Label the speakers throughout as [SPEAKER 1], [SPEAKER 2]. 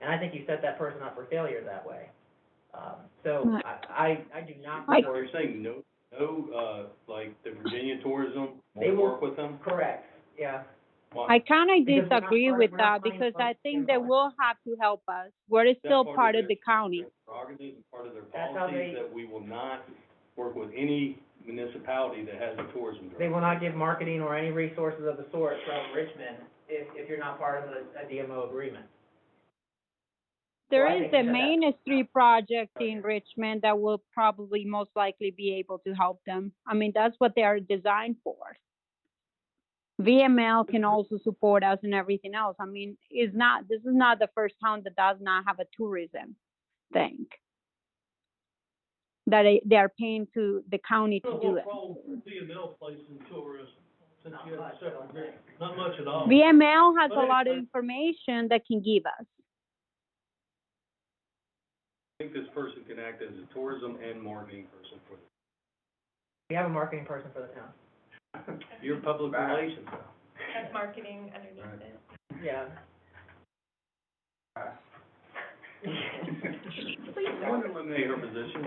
[SPEAKER 1] And I think you set that person up for failure that way. Um, so
[SPEAKER 2] Right.
[SPEAKER 1] I, I, I do not
[SPEAKER 2] I-
[SPEAKER 1] support,
[SPEAKER 3] You're saying no, no, uh, like the Virginia Tourism
[SPEAKER 1] They
[SPEAKER 3] will
[SPEAKER 1] will-
[SPEAKER 3] work with them?
[SPEAKER 1] correct, yeah.
[SPEAKER 3] Why-
[SPEAKER 2] I kind of
[SPEAKER 1] Because we're not
[SPEAKER 2] disagree
[SPEAKER 1] part-
[SPEAKER 2] with
[SPEAKER 1] we're not
[SPEAKER 2] that
[SPEAKER 1] part of
[SPEAKER 2] because I
[SPEAKER 1] the
[SPEAKER 2] think they
[SPEAKER 1] environment.
[SPEAKER 2] will have to help us. We're
[SPEAKER 3] that's
[SPEAKER 2] still part of
[SPEAKER 3] their-
[SPEAKER 2] the county.
[SPEAKER 3] their Prerogatives, part of their
[SPEAKER 1] That's how
[SPEAKER 3] policies,
[SPEAKER 1] they-
[SPEAKER 3] that we will not work with any municipality that has a tourism
[SPEAKER 1] They
[SPEAKER 3] director.
[SPEAKER 1] will not give marketing or any resources of the sort from Richmond if, if you're not part of a, a DMO agreement.
[SPEAKER 2] There
[SPEAKER 1] I
[SPEAKER 2] is
[SPEAKER 1] think
[SPEAKER 2] the
[SPEAKER 1] that-
[SPEAKER 2] Main Street project in Richmond that will probably most likely be able to help them. I mean, that's what they are designed for. VML can also support us and everything else. I mean, it's not, this is not the first town that does not have a tourism thing. That they, they are paying to the county to do it.
[SPEAKER 3] DML plays in tourism, since
[SPEAKER 1] Not you have a much, I separate don't group.
[SPEAKER 3] not much at all.
[SPEAKER 2] VML has
[SPEAKER 3] But
[SPEAKER 2] a
[SPEAKER 3] it-
[SPEAKER 2] lot of
[SPEAKER 3] but-
[SPEAKER 2] information that can give us.
[SPEAKER 3] I think this person can act as a tourism and marketing person for the,
[SPEAKER 1] We have a marketing person for the town.
[SPEAKER 3] your public relations.
[SPEAKER 4] Has marketing underneath it.
[SPEAKER 1] Yeah.
[SPEAKER 3] I wonder when they are positioned.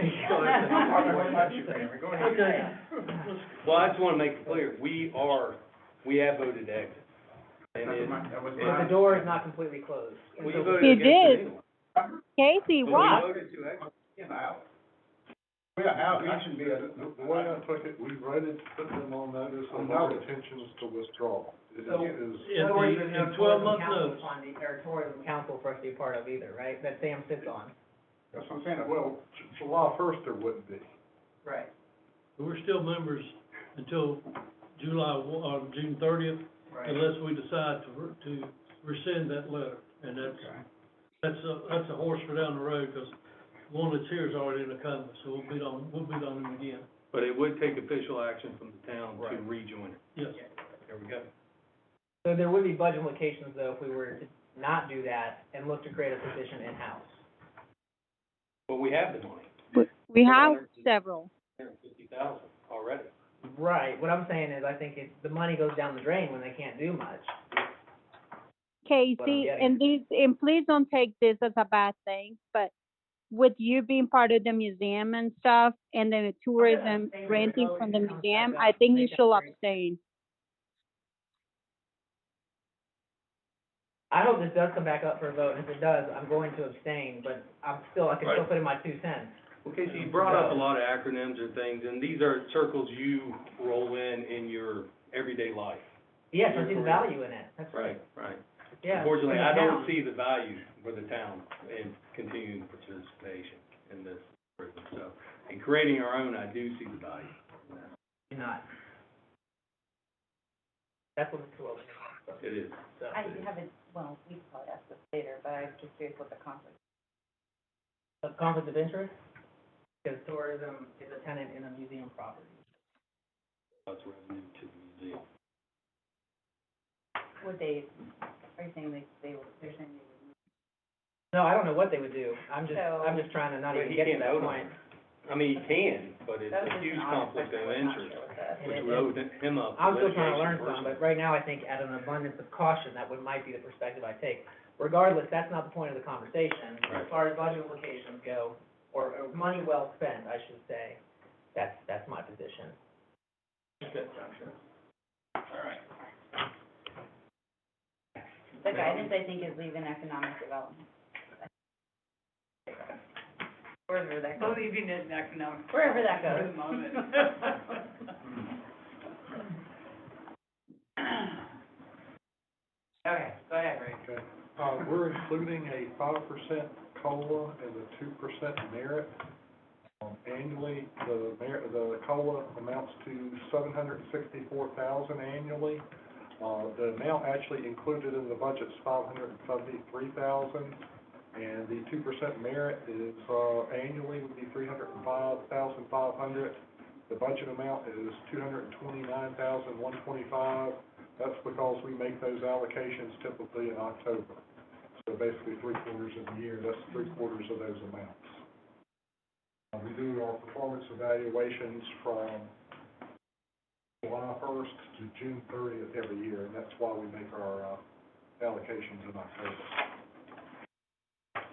[SPEAKER 1] Okay.
[SPEAKER 3] Well, I just wanna make it clear, we are, we have voted to exit. And it,
[SPEAKER 1] But the door is not completely closed. And
[SPEAKER 3] we
[SPEAKER 1] so-
[SPEAKER 3] voted
[SPEAKER 2] You
[SPEAKER 3] against
[SPEAKER 2] did.
[SPEAKER 3] it anyway.
[SPEAKER 2] Casey,
[SPEAKER 3] But
[SPEAKER 2] what?
[SPEAKER 3] We voted to exit.
[SPEAKER 5] We are out, we should be. The way I took it, we voted, put them on notice of our intentions to withdraw. It
[SPEAKER 1] So-
[SPEAKER 5] is,
[SPEAKER 1] In the, in twelve month notes. On the, or tourism council for us to be part of either, right? That Sam sits on.
[SPEAKER 5] that's what I'm saying, well, J- July first there wouldn't be.
[SPEAKER 1] Right.
[SPEAKER 6] We're still members until July, one- uh, June thirtieth, unless we decide to, re- to rescind that letter. And that's, that's a, that's a horse for down the road, because one that's here is already in the coma, so we'll beat on, we'll beat on them again.
[SPEAKER 3] But it would take official action from the town to
[SPEAKER 1] Right.
[SPEAKER 3] rejoin it.
[SPEAKER 6] Yes.
[SPEAKER 3] There we go.
[SPEAKER 1] So there would be budget implications though if we were to not do that and look to create a position in-house.
[SPEAKER 3] But we have the money,
[SPEAKER 2] We- We
[SPEAKER 3] Well,
[SPEAKER 2] have
[SPEAKER 3] there-
[SPEAKER 2] several.
[SPEAKER 3] hundred and fifty thousand already.
[SPEAKER 1] Right, what I'm saying is I think it, the money goes down the drain when they can't do much.
[SPEAKER 2] Casey,
[SPEAKER 1] getting
[SPEAKER 2] and these, and please don't take this as a bad thing, but with you being part of the museum and stuff, and the tourism
[SPEAKER 1] Oh, Same Oh, as
[SPEAKER 2] renting
[SPEAKER 1] always,
[SPEAKER 2] from the
[SPEAKER 1] it comes back
[SPEAKER 2] museum,
[SPEAKER 1] up
[SPEAKER 2] I
[SPEAKER 1] to
[SPEAKER 2] think you
[SPEAKER 1] make up
[SPEAKER 2] should
[SPEAKER 1] for it.
[SPEAKER 2] abstain.
[SPEAKER 1] I hope this does come back up for a vote, and if it does, I'm going to abstain, but I'm still, I can still put in my two cents.
[SPEAKER 3] Okay, so you brought up a lot of acronyms and things, and these are circles you roll in in your everyday life.
[SPEAKER 1] Yes, I
[SPEAKER 3] You're
[SPEAKER 1] see the
[SPEAKER 3] correct.
[SPEAKER 1] value in it, that's right,
[SPEAKER 3] Right.
[SPEAKER 1] yeah.
[SPEAKER 3] Unfortunately,
[SPEAKER 1] for the
[SPEAKER 3] I
[SPEAKER 1] town.
[SPEAKER 3] don't see the value for the town in continuing participation in this, program. so, in creating our own, I do see the value.
[SPEAKER 1] Do Not. That's what it's all about,
[SPEAKER 3] It is.
[SPEAKER 1] so.
[SPEAKER 7] I haven't, well, we can probably ask this later, but I'm just curious what the conflict.
[SPEAKER 1] Of conflict of interest? Because tourism is a tenant in a museum property.
[SPEAKER 3] That's revenue to the museum.
[SPEAKER 7] Would they, are you saying they, they were, they're saying they would?
[SPEAKER 1] No, I don't know what they would do, I'm just,
[SPEAKER 7] So-
[SPEAKER 1] I'm just trying to not
[SPEAKER 3] But
[SPEAKER 1] even
[SPEAKER 3] he
[SPEAKER 1] get to
[SPEAKER 3] can't
[SPEAKER 1] that
[SPEAKER 3] vote on
[SPEAKER 1] point.
[SPEAKER 3] I mean, you can, but it's
[SPEAKER 7] That was
[SPEAKER 3] a
[SPEAKER 7] just
[SPEAKER 3] huge
[SPEAKER 7] an honest
[SPEAKER 3] conflict
[SPEAKER 7] question.
[SPEAKER 3] of
[SPEAKER 7] We're not
[SPEAKER 3] interest,
[SPEAKER 7] sure what that-
[SPEAKER 3] which would open him up to
[SPEAKER 1] I'm still trying to learn
[SPEAKER 3] litigation
[SPEAKER 1] some,
[SPEAKER 3] personally.
[SPEAKER 1] but right now, I think out of an abundance of caution, that would, might be the perspective I take. Regardless, that's not the point of the conversation. As
[SPEAKER 3] Right.
[SPEAKER 1] far as budget implications go, or, or money well spent, I should say, that's, that's my position.
[SPEAKER 7] The guidance, I think, is leave in economic development. Wherever that goes. Leaving it in economic. Wherever that goes. For the moment.
[SPEAKER 1] Okay, go ahead, Ray.
[SPEAKER 5] Okay. Uh, we're including a five percent COLA and a two percent merit. Um, Annually, the merit, the COLA amounts to seven hundred and sixty-four thousand annually. Uh, the amount actually included in the budget's five hundred and seventy-three thousand. And the two percent merit is, uh, annually would be three hundred and five thousand five hundred. The budget amount is two hundred and twenty-nine thousand one twenty-five. That's because we make those allocations typically in October. So basically, three quarters of the year, that's three quarters of those amounts. Uh, We do our performance evaluations from July first to June thirtieth every year, and that's why we make our uh, allocations in October.